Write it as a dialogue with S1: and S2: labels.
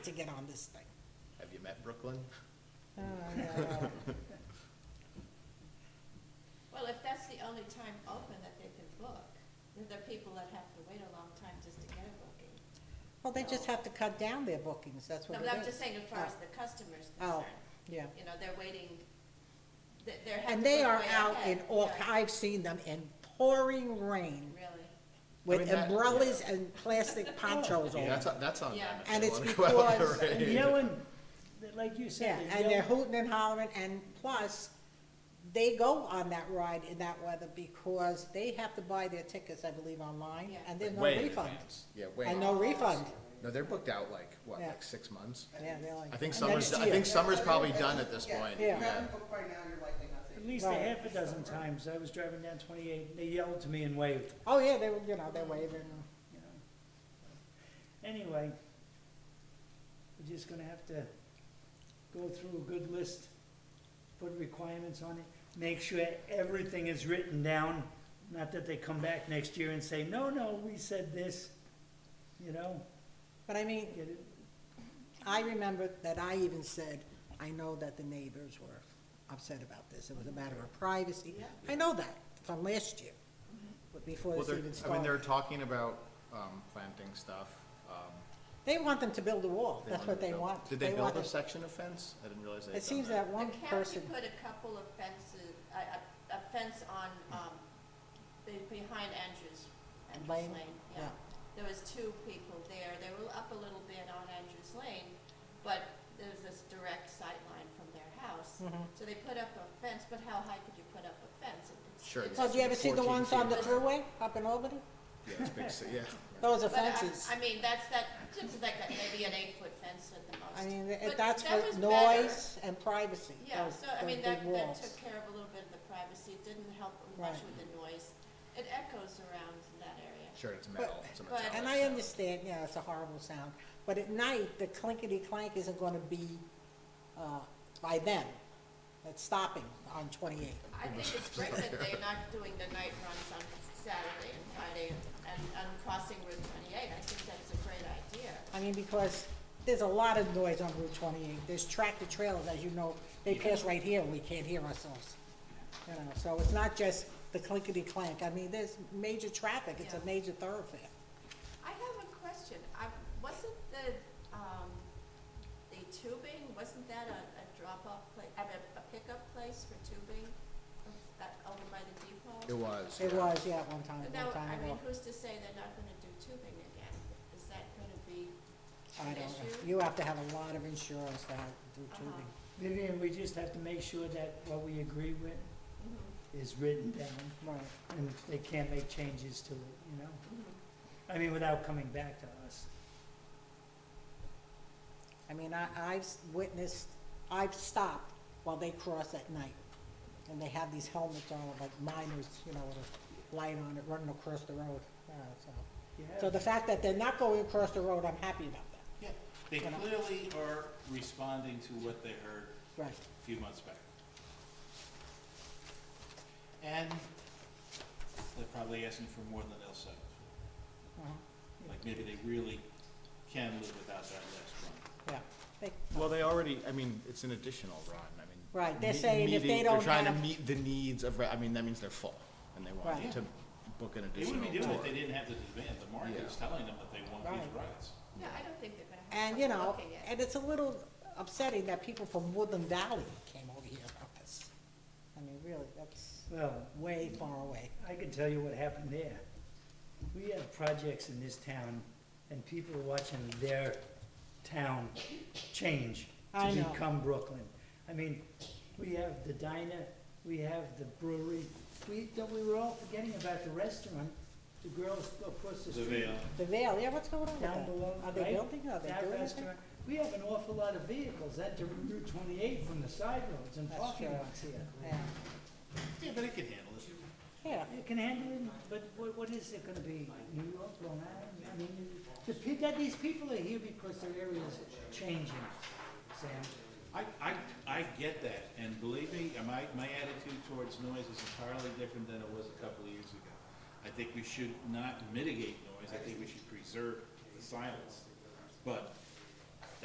S1: to get on this thing.
S2: Have you met Brooklyn?
S3: Well, if that's the only time open that they can book, then there are people that have to wait a long time just to get a booking.
S1: Well, they just have to cut down their bookings, that's
S3: No,
S1: what it
S3: but
S1: is.
S3: I'm just saying as far as
S1: Oh.
S3: the customer's
S1: Oh,
S3: concerned,
S1: yeah.
S3: you know, they're waiting, they- they're having
S1: And
S3: to
S1: they
S3: book
S1: are
S3: way
S1: out in
S3: ahead.
S1: all,
S3: Yeah,
S1: I've seen them in pouring rain
S3: Really,
S1: with
S2: mean, that-
S1: umbrellas and plastic ponchos
S2: Yeah,
S1: on.
S2: that's, on- that's on them.
S3: Yeah.
S2: if
S1: Oh. And
S2: they
S1: it's
S2: wanna go out
S1: because-
S2: there,
S4: And
S2: right?
S4: yelling, like you
S1: Yeah,
S4: said,
S1: and they're
S4: they're yelling.
S1: hooting and hollering, and plus, they go on that ride in that weather because they have to buy their tickets, I believe, online,
S3: Yeah.
S1: and there's no
S5: Way in
S1: refund.
S5: advance.
S2: Yeah,
S1: And
S2: wait,
S1: no refund,
S2: no, they're booked out like, what,
S1: Yeah.
S2: like six months?
S1: yeah, they're like.
S2: I think
S1: "And
S2: summer's,
S1: next
S2: I
S1: year."
S2: think summer's probably done at this point.
S1: Yeah.
S6: booked by now, you're likely not to.
S4: At least a
S1: Right.
S4: half a dozen times, I was driving down twenty-eight, and they yelled to me and waved,
S1: Oh, yeah, they were, you know, they're waving,
S4: you know. Anyway, we're just gonna have to go through a good list, put requirements on it, make sure everything is written down, not that they come back next year and say, no, no, we said this, you know,
S1: but I mean,
S4: get it,
S1: I remember that I even said, I know that the neighbors were upset about this, it was a matter of privacy.
S3: Yeah. Mm-hmm.
S1: I know that from last year, but before
S2: Well,
S1: this
S2: they're,
S1: even
S2: I mean, they're
S1: started.
S2: talking about, um, planting stuff, um.
S1: They want them to build a wall,
S2: they
S1: that's
S2: wanted
S1: what
S2: to
S1: they
S2: build-
S1: want.
S2: Did they
S1: want
S2: build a
S1: it-
S2: section of fence? I didn't realize they had
S1: It seems
S2: done
S1: that
S2: that.
S1: one
S3: the county
S1: person,
S3: put a couple of fences, a, a, a fence on, um, be- behind Andrews, Andrews
S1: Lane,
S3: Lane,
S1: yeah.
S3: yeah. There was two people there, they were up a little bit on Andrews Lane, but there's this direct sight line from their house.
S1: Mm-hmm.
S3: So they put up a fence, but how high could you put up a fence? It- it's-
S2: Sure,
S3: it's-
S1: well, oh, do you ever see the
S2: 14
S1: ones on the
S3: feet.
S1: thruway up in Albany?
S2: Yeah, it's big, so, yeah.
S1: Those are
S3: But I-
S1: fences.
S3: I mean, that's that, just like that, maybe an eight-foot fence at the most.
S1: I mean,
S3: But
S1: if that's
S3: that
S1: for
S3: was better.
S1: noise and privacy,
S3: Yeah,
S1: those,
S3: so, I
S1: those
S3: mean,
S1: big
S3: that, that
S1: Oh, walls.
S3: took care of a little bit of the privacy, it didn't help much
S1: Right.
S3: with the noise. It echoes around in that area.
S2: Sure, it's metal, it's a
S3: but-
S2: metallic.
S1: And I
S2: sound.
S1: understand, yeah, it's a horrible sound, but at night, the clinkety clank isn't gonna be, uh, by them. It's stopping on twenty-eight.
S3: I think it's great that they're not doing the night runs on Saturday and Friday and, and crossing Route twenty-eight, I think that's a great idea.
S1: I mean, because there's a lot of noise on Route twenty-eight, there's tractor trailers, as you know, they pass right here, and we can't hear ourselves. You know, so it's not just the clinkety clank, I mean, there's major traffic, it's a
S3: Yeah.
S1: major thoroughfare.
S3: I have a question, I, wasn't the, um, the tubing, wasn't that a, a drop-off place, I mean, a pickup place for tubing? That, over by the depot?
S2: It was.
S1: It
S2: yeah.
S1: was, yeah, at one time,
S3: But
S1: one
S3: now, I
S1: time
S3: mean,
S1: ago.
S3: who's to say they're not gonna do tubing again? Is that gonna be
S1: I
S3: an
S1: don't know,
S3: issue?
S1: you have to have a lot of insurance to have, do
S3: Uh-huh.
S1: tubing.
S4: Vivian, we just have to make sure that what we agree with
S3: Mm-hmm,
S4: is written down,
S3: Uh-huh.
S1: Right,
S4: and they can't make changes to it, you know?
S3: mm-hmm.
S4: I mean, without coming back to us.
S1: I mean, I, I've witnessed, I've stopped while they cross at night, and they have these helmets on, like miners, you know, with a light on it, running across the road, uh, so. So the fact that they're not going across the road, I'm happy about that.
S5: Yeah, they
S1: You know.
S5: clearly are responding to what they heard
S1: Right.
S5: a few months back. And they're probably asking for more than they'll settle for.
S1: Uh-huh.
S5: Like maybe they really can live without that last run.
S1: Yeah. They-
S2: Well, they already, I mean, it's an additional run, I mean.
S1: Right, they're
S2: me-
S1: saying if they
S2: meeting-
S1: don't
S2: They're trying
S1: have-
S2: to meet the needs of, re- I mean, that means they're full, and they
S1: Right.
S2: want to book an
S5: They
S2: additional
S5: wouldn't be doing it if
S2: tour.
S5: they didn't have the demand. The market's telling them that they want these
S1: Right.
S5: rides.
S3: No, I don't think they're gonna have
S1: And, you
S3: trouble
S1: know,
S3: looking at.
S1: and it's a little upsetting that people from Woodland Valley came over here about this. I mean, really, that's
S4: Well,
S1: way far away.
S4: I can tell you what happened there. We have projects in this town, and people are watching their town change
S1: I
S4: to
S1: know.
S4: become Brooklyn. I mean, we have the diner, we have the brewery, we, that we were all forgetting about the restaurant, the girls across the
S5: The
S4: street.
S5: Vale.
S1: The Vale, yeah, what's going on with
S4: down
S1: that?
S4: below,
S1: Are
S4: right?
S1: they building, are they
S4: That
S1: Oh, doing anything?
S4: restaurant. We have an awful lot of vehicles enter Route twenty-eight from the side roads and
S1: That's
S4: parking
S1: true.
S4: lots here.
S1: Yeah,
S5: Yeah, but they can handle it.
S1: yeah,
S4: It can handle it, but what, what is it gonna be, New York, Long Island? I mean, the pe- that these people are here because their area's changing, Sam.
S5: I, I, I get that, and believe me, uh, my, my attitude towards noise is entirely different than it was a couple of years ago. I think we should not mitigate noise, I think we should preserve the silence. But